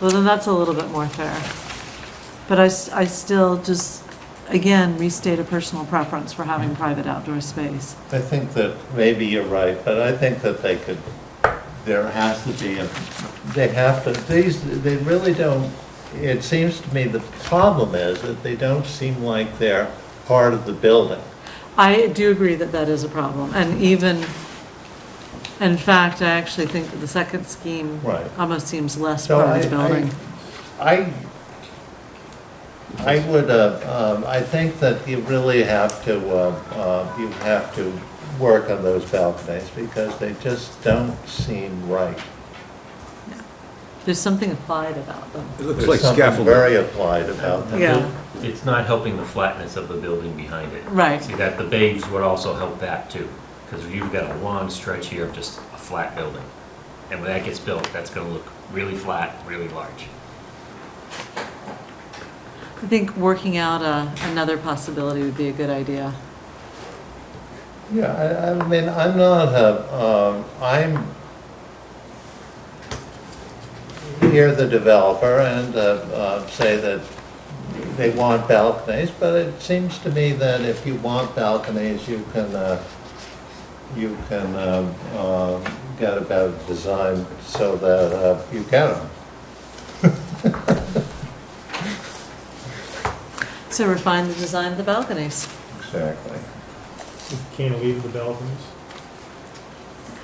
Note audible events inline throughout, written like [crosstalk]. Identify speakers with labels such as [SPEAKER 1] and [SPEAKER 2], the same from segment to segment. [SPEAKER 1] Well, then that's a little bit more fair. But I, s- I still just, again, restate a personal preference for having
[SPEAKER 2] Mm-hmm.
[SPEAKER 1] private outdoor space.
[SPEAKER 2] I think that maybe you're right, but I think that they could, there has to be, a they have to, these, they really don't, it seems to me the problem is that they don't seem like they're part of the building.
[SPEAKER 1] I do agree that that is a problem, and even, in fact, I actually think that the second scheme
[SPEAKER 2] Right.
[SPEAKER 1] almost seems less
[SPEAKER 2] So
[SPEAKER 1] part of the
[SPEAKER 2] I-
[SPEAKER 1] building.
[SPEAKER 2] I, I- I would, uh, um, I think that you really have to, uh, uh, you have to work on those balconies because they just don't seem right.
[SPEAKER 1] There's something applied about them.
[SPEAKER 3] It looks
[SPEAKER 2] There's
[SPEAKER 3] like
[SPEAKER 2] something
[SPEAKER 3] scaffolding.
[SPEAKER 2] Very applied about them.
[SPEAKER 1] Yeah,
[SPEAKER 4] It's not helping the flatness of the building behind it.
[SPEAKER 1] Right.
[SPEAKER 4] See, that the bays would also help that too, because you've got a long stretch here of just a flat building. And when that gets built, that's gonna look really flat, really large.
[SPEAKER 1] I think working out a, another possibility would be a good idea.
[SPEAKER 2] Yeah, I, I mean, I'm not a, um, I'm hear the developer and, uh, uh, say that they want balconies, but it seems to me that if you want balconies, you can, uh, you can, um, um get a better design so that, uh, you get them.
[SPEAKER 1] So refine the design of the balconies.
[SPEAKER 2] Exactly.
[SPEAKER 5] Can't leave the balconies.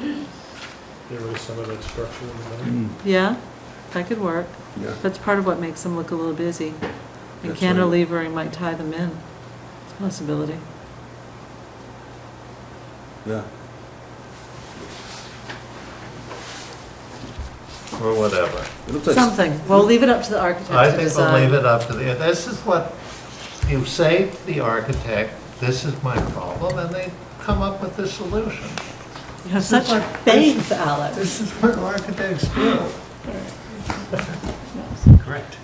[SPEAKER 5] Get rid of some of that structure in the middle.
[SPEAKER 3] Mm,
[SPEAKER 1] Yeah, that could work.
[SPEAKER 3] yeah.
[SPEAKER 1] That's part of what makes them look a little busy. And
[SPEAKER 3] That's right.
[SPEAKER 1] cantilevering might tie them in. It's a possibility.
[SPEAKER 3] Yeah.
[SPEAKER 2] Or whatever.
[SPEAKER 3] It looks like-
[SPEAKER 1] Something. Well, leave it up to the architect
[SPEAKER 2] I
[SPEAKER 1] to
[SPEAKER 2] think we'll leave
[SPEAKER 1] decide.
[SPEAKER 2] it up to the, this is what, you say to the architect, this is my problem, and they come up with the solution.
[SPEAKER 1] You have such faith, Alex.
[SPEAKER 2] This is what architects do.
[SPEAKER 4] Correct.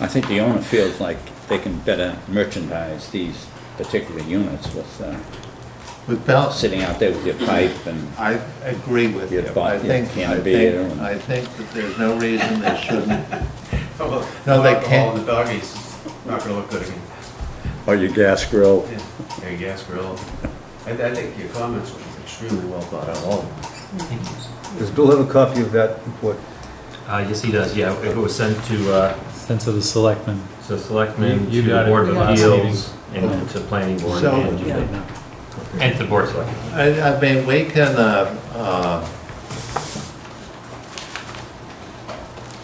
[SPEAKER 6] I think the owner feels like they can better merchandise these particular units with, uh,
[SPEAKER 2] With balconies.
[SPEAKER 6] sitting out there with your pipe and,
[SPEAKER 2] I agree with you.
[SPEAKER 6] Your thought,
[SPEAKER 2] I think,
[SPEAKER 6] yeah,
[SPEAKER 2] I
[SPEAKER 6] can be your
[SPEAKER 2] think,
[SPEAKER 6] own.
[SPEAKER 2] I think that there's no reason they [laughs] shouldn't.
[SPEAKER 7] Oh,
[SPEAKER 2] No,
[SPEAKER 7] well,
[SPEAKER 2] they
[SPEAKER 7] alcohol
[SPEAKER 2] can't.
[SPEAKER 7] in the doggies, it's not gonna look good again.
[SPEAKER 3] Or Oh, your gas grill.
[SPEAKER 7] Yeah, your gas grill. I, I think your comments were extremely well thought out.
[SPEAKER 3] Does Bill have a copy of that report?
[SPEAKER 4] Uh, yes, he does, yeah, it was sent to, uh,
[SPEAKER 8] Sent to the selectmen.
[SPEAKER 4] so selectmen,
[SPEAKER 8] You-
[SPEAKER 4] to
[SPEAKER 8] you got
[SPEAKER 4] the
[SPEAKER 8] it
[SPEAKER 4] board of
[SPEAKER 1] the last
[SPEAKER 4] appeals, and to planning board,
[SPEAKER 2] So-
[SPEAKER 4] and
[SPEAKER 1] Yeah.
[SPEAKER 4] and to the board of selectmen.
[SPEAKER 2] I, I mean, we can, uh, uh,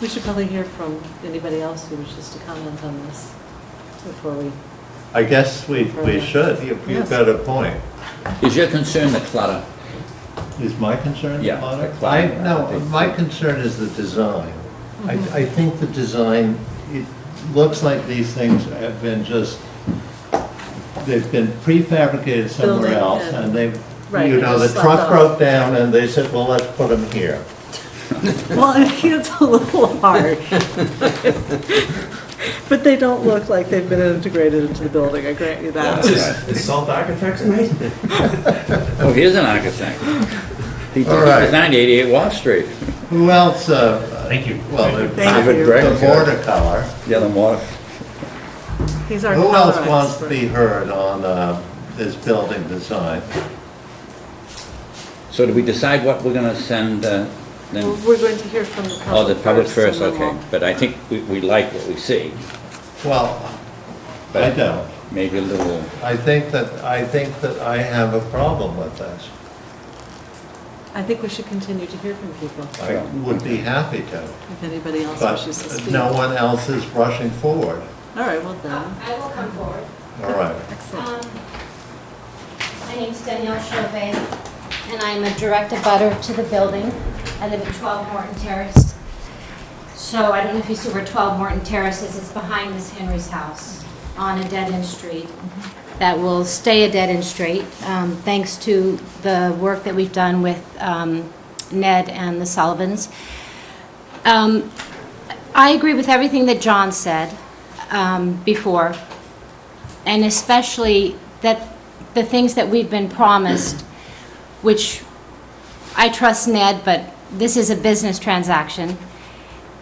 [SPEAKER 1] We should probably hear from anybody else who wishes to comment on this before
[SPEAKER 2] [laughs]
[SPEAKER 1] we,
[SPEAKER 2] I guess we, we should, You-
[SPEAKER 1] Yes.
[SPEAKER 2] you've got a point.
[SPEAKER 6] is your concern the clutter?
[SPEAKER 2] Is my concern the
[SPEAKER 6] Yeah,
[SPEAKER 2] product?
[SPEAKER 6] the
[SPEAKER 2] I,
[SPEAKER 6] climate, I
[SPEAKER 2] no,
[SPEAKER 6] think.
[SPEAKER 2] my concern is the design. I,
[SPEAKER 1] Mm-hmm.
[SPEAKER 2] I think the design, it looks like these things have been just, they've been prefabricated somewhere
[SPEAKER 1] Building
[SPEAKER 2] else,
[SPEAKER 1] and-
[SPEAKER 2] and they've,
[SPEAKER 1] Right,
[SPEAKER 2] you
[SPEAKER 1] they
[SPEAKER 2] know, the
[SPEAKER 1] just
[SPEAKER 2] truck
[SPEAKER 1] slapped
[SPEAKER 2] broke down, and they said, well, let's put them here.
[SPEAKER 1] well, I think it's a little
[SPEAKER 2] [laughs]
[SPEAKER 1] hard. But they don't look like they've been integrated into the building, I grant you that.
[SPEAKER 7] Is Salt Architects mate?
[SPEAKER 6] Oh, he is an architect. He
[SPEAKER 2] All right.
[SPEAKER 6] designed 88 Wall Street.
[SPEAKER 2] Who else, uh,
[SPEAKER 4] Thank you.
[SPEAKER 2] well, the
[SPEAKER 1] Thank
[SPEAKER 3] David
[SPEAKER 1] you.
[SPEAKER 3] Brett.
[SPEAKER 2] the border color.
[SPEAKER 3] Yeah, the water.
[SPEAKER 1] He's our
[SPEAKER 2] Who
[SPEAKER 1] color
[SPEAKER 2] else wants to
[SPEAKER 1] expert.
[SPEAKER 2] be heard on, uh, this building design?
[SPEAKER 6] So do we decide what we're gonna send, uh,
[SPEAKER 1] Well,
[SPEAKER 6] then?
[SPEAKER 1] We're going to hear from the public
[SPEAKER 6] Oh, the public first,
[SPEAKER 1] and then
[SPEAKER 6] okay.
[SPEAKER 1] we'll-
[SPEAKER 6] But I think we, we like what we see.
[SPEAKER 2] Well, I
[SPEAKER 6] But
[SPEAKER 2] don't.
[SPEAKER 6] Maybe a little,
[SPEAKER 2] I think that, I think that I have a problem with this.
[SPEAKER 1] I think we should continue to hear from people,
[SPEAKER 2] I would be happy to,
[SPEAKER 1] if anybody else wishes to
[SPEAKER 2] but uh,
[SPEAKER 1] speak.
[SPEAKER 2] no
[SPEAKER 1] All
[SPEAKER 2] one else is rushing forward.
[SPEAKER 1] right, well then,
[SPEAKER 9] I will come forward.
[SPEAKER 2] All right.
[SPEAKER 1] excellent.
[SPEAKER 9] Um, My name's Danielle Chauvet, and I'm a direct abutter to the building. I live at 12 Morton Terrace. So I don't know if you see where 12 Morton Terrace is, it's behind Miss Henry's house on a dead-end street that will stay a dead-end street, um, thanks to the work that we've done with um, Ned and the Sullivans. Um, I agree with everything that John said um, before, and especially that the things that we've been promised, which I trust Ned, but this is a business transaction,